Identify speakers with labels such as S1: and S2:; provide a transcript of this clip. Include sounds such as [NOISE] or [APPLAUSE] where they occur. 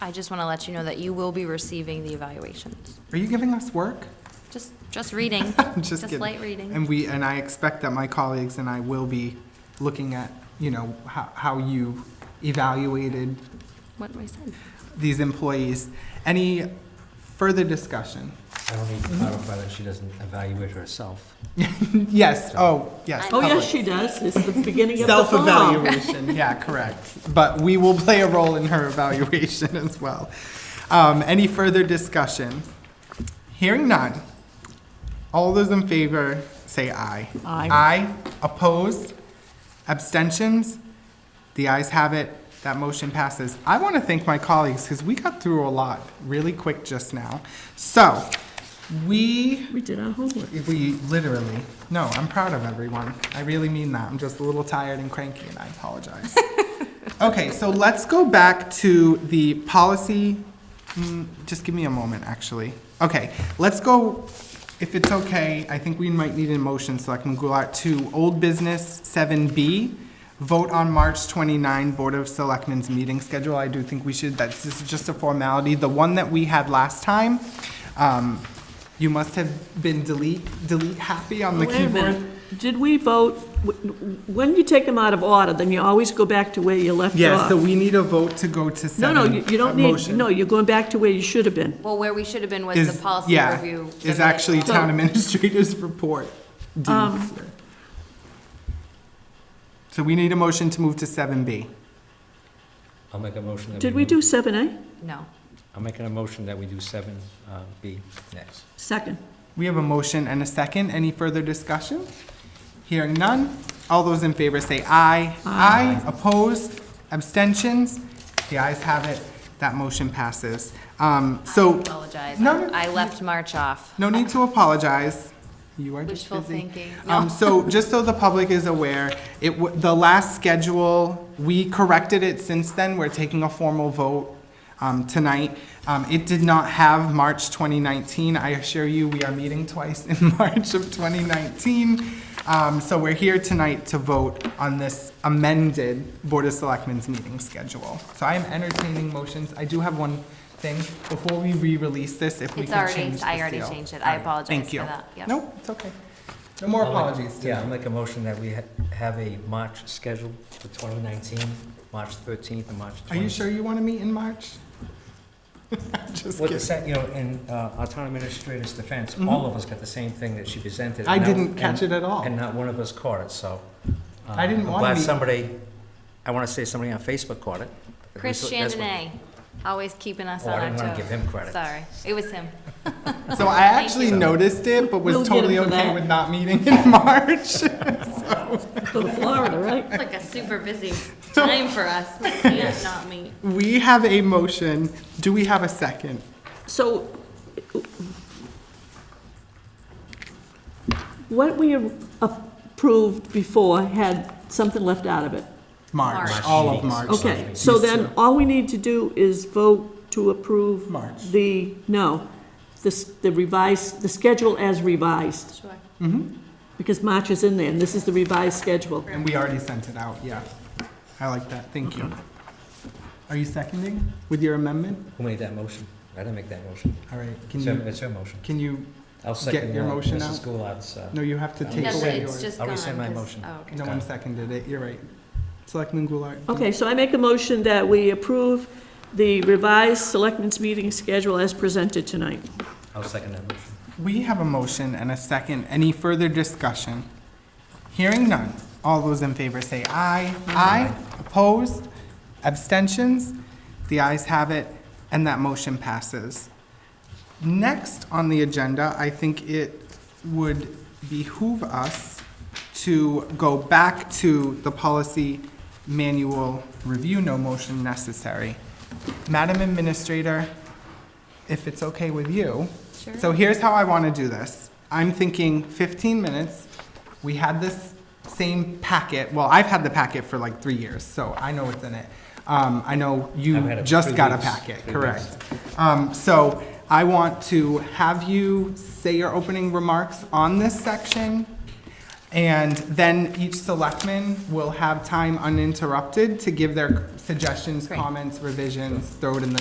S1: I just want to let you know that you will be receiving the evaluations.
S2: Are you giving us work? [LAUGHS]
S1: Just, just [LAUGHS] reading,
S2: I'm just
S1: just
S2: kidding.
S1: light reading.
S2: And we, and I expect that my colleagues and I will be looking at, you know, how, how you evaluated
S1: What we said.
S2: these employees. Any further discussion? [LAUGHS]
S3: I don't need to clarify that she doesn't evaluate herself.
S2: Yes, oh, yes.
S4: Oh,
S2: public.
S4: yes, she does. It's the beginning of the fall.
S2: Self-evaluation, yeah, correct. But we will play a role in her evaluation as well. Um, any further discussion? Hearing none. All those in favor, say aye.
S4: Aye.
S2: Aye, opposed, abstentions? The ayes have it, that motion passes. I want to thank my colleagues, because we got through a lot really quick just now. So, we
S4: We did our homework.
S2: we literally, no, I'm proud of everyone. I really mean that. I'm just a little tired and cranky and I apologize. okay, so let's go back to the policy. mm, Just give me a moment, actually. Okay, let's go, if it's okay, I think we might need a motion so I can go out to old business 7B. Vote on March 29 Board of Selectmen's meeting schedule. I do think we should, that's, this is just a formality. The one that we had last time, um, you must have been delete, delete happy on the
S4: Wait a
S2: keyboard.
S4: minute. Did we vote, when you take them out of order, then you always go back to where you left
S2: Yeah, so
S4: off.
S2: we need a vote to go to
S4: No,
S2: seven.
S4: no, you
S2: uh,
S4: you don't need,
S2: motion.
S4: no, you're going back to where you should have been.
S1: Well, where we should have been was
S2: Is-
S1: the policy
S2: yeah,
S1: review.
S2: Is
S1: the minute.
S2: actually town administrator's [LAUGHS] report. D.
S4: Um,
S2: So we need a motion to move to seven B.
S3: I'll make a motion that we.
S4: Did we do
S3: move-
S4: seven A?
S1: No.
S3: I'm making a motion that we do seven uh, B next.
S4: Second.
S2: We have a motion and a second. Any further discussion? Hearing none. All those in favor say aye. Aye. Opposed? Abstentions? The ayes have it. That motion passes. Um,
S1: I
S2: so,
S1: apologize.
S2: No, no.
S1: I left March off.
S2: no need to apologize. You are just
S1: Wishful
S2: busy.
S1: thinking.
S2: Um, so, just so the public is aware, it, wa- the last schedule, we corrected it since then, we're taking a formal vote, um, tonight. Um, it did not have March 2019, I assure you, we are meeting twice in [LAUGHS] March of 2019. Um, so we're here tonight to vote on this amended Board of Selectmen's meeting schedule. So I am entertaining motions, I do have one thing, before we re-release this, if we
S1: It's
S2: can
S1: already,
S2: change the
S1: I already
S2: seal.
S1: changed it. I
S2: All right,
S1: apologize for that.
S2: Thank you.
S1: Yep.
S2: Nope, it's okay. No more
S3: I'll make-
S2: apologies
S3: Yeah, I'll
S2: today.
S3: make a motion that we ha- have a March schedule for 2019, March 13th and March 20th.
S2: Are you sure you want to meet in March? [LAUGHS] I'm Just
S3: What
S2: kidding.
S3: the, sa- you know, in uh, our town administrator's defense, all of us got the same thing that she presented.
S2: Mm-hmm. I
S3: and not-
S2: didn't catch
S3: and-
S2: it at all.
S3: And not one of us caught it, so. uh,
S2: I didn't
S3: I'm
S2: wanna
S3: glad
S2: be-
S3: somebody, I want to say somebody on Facebook caught it.
S1: Chris
S3: That's what-
S1: Chandonnet, always keeping us
S3: Oh,
S1: on
S3: I
S1: our
S3: didn't
S1: toes.
S3: wanna give him credit.
S1: Sorry. It was him.
S2: So I actually
S3: you.
S2: noticed it, but
S4: We'll
S2: was
S4: get him
S2: totally
S4: for
S2: okay
S4: that.
S2: with not meeting in [LAUGHS] March.
S4: Go to Florida, right?
S1: It's [LAUGHS] like a super busy time for us.
S3: [LAUGHS]
S1: We can't not meet.
S2: We have a motion. Do we have a second?
S4: So what we approved before had something left out of it.
S2: March,
S1: March.
S2: all of
S3: Meetings.
S2: March.
S4: Okay, so then, all we need to do is vote to approve.
S2: March.
S4: The, no, this, the revised, the schedule as revised,
S1: Sure.
S4: because March is in there, and this is the revised schedule.
S2: And we already sent it out, yeah. I like that, thank you. Are you seconding with your amendment?
S3: Who made that motion? I didn't make that motion.
S2: All right, can
S3: It's her,
S2: you,
S3: it's her motion.
S2: can you,
S3: I'll second
S2: your
S3: uh,
S2: motion out?
S3: Mrs. Goulart's, uh,
S2: no, you have to
S3: No,
S2: take
S1: No,
S2: away
S1: it's
S2: yours.
S1: just
S3: I'll
S1: gone,
S3: rescind my
S1: 'cause-
S3: motion.
S1: Oh, okay.
S2: No one seconded it, you're right. Selectman Goulart?
S4: Okay, so I make a motion that we approve the revised selectmen's meeting schedule as presented tonight.
S3: I'll second that motion.
S2: We have a motion and a second. Any further discussion? Hearing none. All those in favor say aye. Aye. Opposed? Abstentions? The ayes have it, and that motion passes. Next on the agenda, I think it would behoove us to go back to the policy manual review, no motion necessary. Madam Administrator, if it's okay with you.
S1: Sure.
S2: So here's how I want to do this. I'm thinking 15 minutes. We had this same packet, well, I've had the packet for like three years, so I know what's in it. Um, I know
S3: I've
S2: you
S3: had it
S2: just
S3: three
S2: got a
S3: weeks,
S2: packet,
S3: three
S2: correct? Um, so I want to have you say your opening remarks on this section. And then each selectman will have time uninterrupted to give their suggestions, comments, revisions, throw it in the